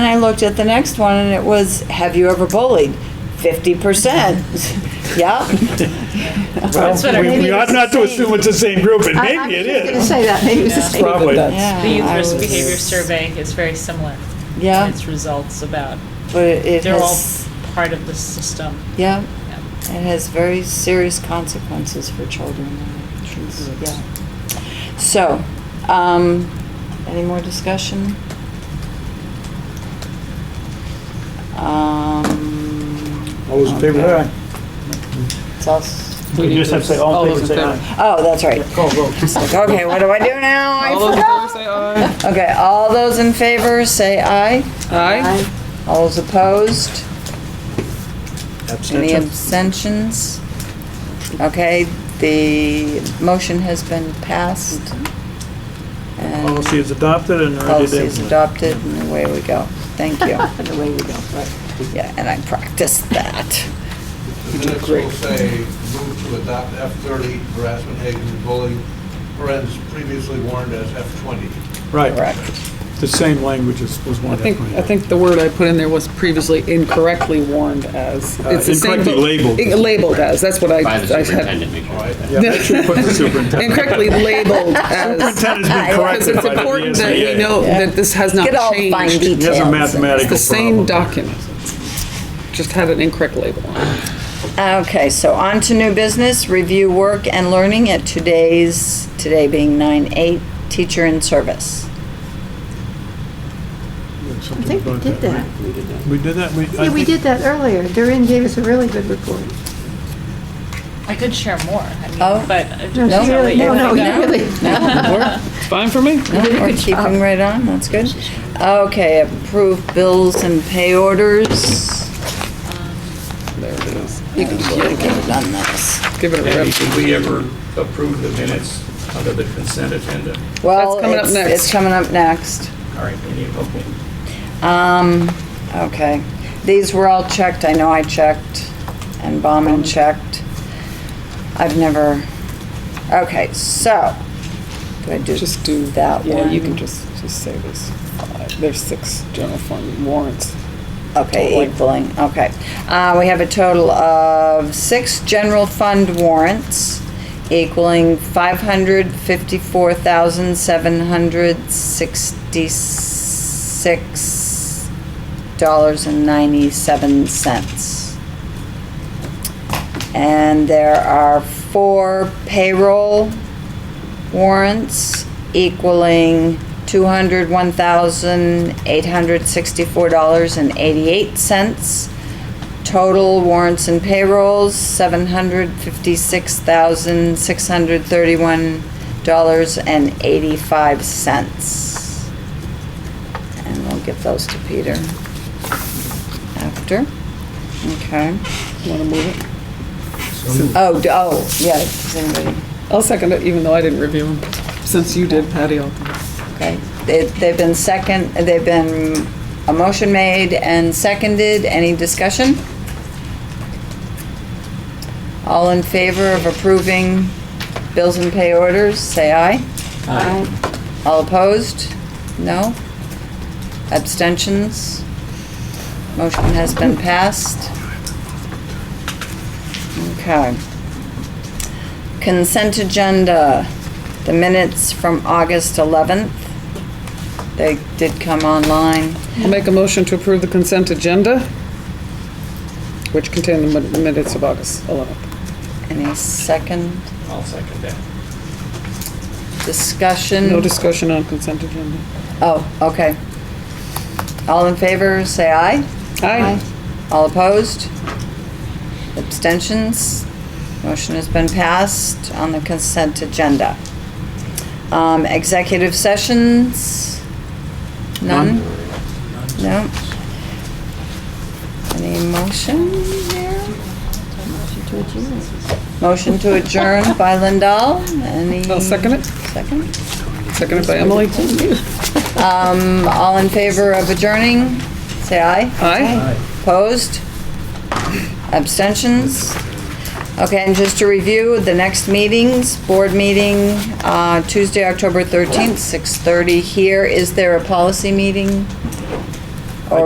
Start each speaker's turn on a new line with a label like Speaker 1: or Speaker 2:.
Speaker 1: And I looked at the next one and it was, have you ever bullied? Fifty percent. Yep.
Speaker 2: That's what I-
Speaker 3: We we ought not to assume it's the same group, but
Speaker 4: I- I
Speaker 3: maybe it
Speaker 4: was just gonna
Speaker 3: is.
Speaker 4: say that, maybe it was the same.
Speaker 3: Probably.
Speaker 1: Yeah,
Speaker 2: The youth
Speaker 1: Uh, I
Speaker 2: risk
Speaker 1: was-
Speaker 2: behavior survey is very similar. in
Speaker 1: Yeah,
Speaker 2: Its results about,
Speaker 1: but it it
Speaker 2: they're all
Speaker 1: has,
Speaker 2: part of the system.
Speaker 1: yeah,
Speaker 2: Yeah.
Speaker 1: it has very serious consequences for children. It's- Yeah. So, um, any more discussion? Um.
Speaker 3: All those in favor,
Speaker 1: okay.
Speaker 3: aye.
Speaker 1: It's all s-
Speaker 5: We just have to say all in favor, say aye.
Speaker 1: Oh, that's right.
Speaker 5: Call vote.
Speaker 1: Okay, what do I do now? I
Speaker 5: All those in
Speaker 1: forgot.
Speaker 5: favor, say
Speaker 6: uh,
Speaker 5: aye.
Speaker 1: Okay, all those in favor, say aye.
Speaker 5: Aye?
Speaker 1: All those opposed? Any
Speaker 3: Abstention?
Speaker 1: abstentions? Okay, the motion has been passed. And
Speaker 3: Policy is adopted and ready
Speaker 1: policy is
Speaker 3: to...
Speaker 1: adopted, and away we go. Thank you.
Speaker 4: And away we go, right.
Speaker 1: Yeah, and I practiced that.
Speaker 7: The minutes will say, move to adopt F-30 harassment, hate, and bullying, friends previously warned as F-20.
Speaker 3: Right,
Speaker 1: Correct.
Speaker 3: the same language is- was
Speaker 6: I
Speaker 3: one.
Speaker 6: think, I think the word I put in there was previously incorrectly warned as.
Speaker 3: Uh,
Speaker 6: It's the same
Speaker 3: incorrectly
Speaker 6: book.
Speaker 3: labeled.
Speaker 6: I- Labeled as, that's what I.
Speaker 8: By the
Speaker 6: I had.
Speaker 8: superintendent, make sure.
Speaker 7: All right?
Speaker 3: Yeah, make sure you put the superintendent.
Speaker 6: Incorrectly labeled as,
Speaker 3: Superintendent's been
Speaker 6: because
Speaker 3: corrected
Speaker 6: it's
Speaker 3: by the E
Speaker 6: important that we
Speaker 3: ESBA.
Speaker 6: know that this has not
Speaker 1: Good old fine
Speaker 6: changed.
Speaker 3: He has a
Speaker 1: details.
Speaker 3: mathematical problem.
Speaker 6: It's the same document, just had an incorrect label on it.
Speaker 1: Okay, so on to new business, review work and learning at today's, today being 9/8, teacher in service.
Speaker 4: I think we did that.
Speaker 3: We did that? We- I
Speaker 4: Yeah, we
Speaker 3: think-
Speaker 4: did that earlier. Doreen gave us a really good report.
Speaker 2: I could share more, I mean,
Speaker 1: Oh.
Speaker 2: but. uh, I
Speaker 4: No,
Speaker 2: just-
Speaker 4: she really, no, no, you really.
Speaker 6: Fine for me?
Speaker 1: We're keeping right on, that's good. Okay, approve bills and pay orders.
Speaker 6: There it is.
Speaker 1: You should have done this.
Speaker 6: Give it a
Speaker 9: Debbie,
Speaker 6: rip.
Speaker 9: did we ever approve the minutes under the consent agenda?
Speaker 1: Well,
Speaker 6: coming up
Speaker 1: it's,
Speaker 6: next.
Speaker 1: it's coming up next.
Speaker 9: All right, any, okay.
Speaker 1: Um, okay. These were all checked, I know I checked, and Bauman checked. I've never, okay, so, do I do
Speaker 6: Just do.
Speaker 1: that one?
Speaker 6: Yeah, you can just, just say this. Five- There's six general fund warrants.
Speaker 1: Okay,
Speaker 6: Totally.
Speaker 1: equaling, okay. Uh, we have a total of six general fund warrants equaling five hundred fifty-four thousand seven hundred sixty-six dollars and ninety-seven cents. And there are four payroll warrants equaling two hundred one thousand eight hundred sixty-four dollars and eighty-eight cents. Total warrants and payrolls, seven hundred fifty-six thousand six hundred thirty-one dollars and eighty-five cents. And we'll give those to Peter after. Okay.
Speaker 6: Want to move it?
Speaker 1: Oh, d- oh, yeah, does anybody?
Speaker 6: I'll second it, even though I didn't review them. Since you did, Patty, I'll.
Speaker 1: Okay, They- they've been second, they've been, a motion made and seconded, any discussion? All in favor of approving bills and pay orders, say aye.
Speaker 4: Aye.
Speaker 1: All opposed? No? Abstentions? Motion has been passed. Okay. Consent agenda, the minutes from August 11th. They did come online.
Speaker 6: I'll make a motion to approve the consent agenda, which contain the min- minutes of August 11th.
Speaker 1: Any second
Speaker 9: I'll second that.
Speaker 1: discussion?
Speaker 6: No discussion on consent agenda.
Speaker 1: Oh, okay. All in favor, say aye.
Speaker 6: Aye.
Speaker 1: All opposed? Abstentions? Motion has been passed on the consent agenda. Um, Executive sessions? None? No? Any motion there? Motion to adjourn by Lindell. Any?
Speaker 6: I'll second it.
Speaker 1: Second?
Speaker 6: Seconded by Emily.
Speaker 1: Um, All in favor of adjourning? Say aye.
Speaker 6: Aye.
Speaker 1: Opposed? Abstentions? Okay, and just to review, the next meetings, board meeting, uh, Tuesday, October 13th, 6:30 here. Is there a policy meeting?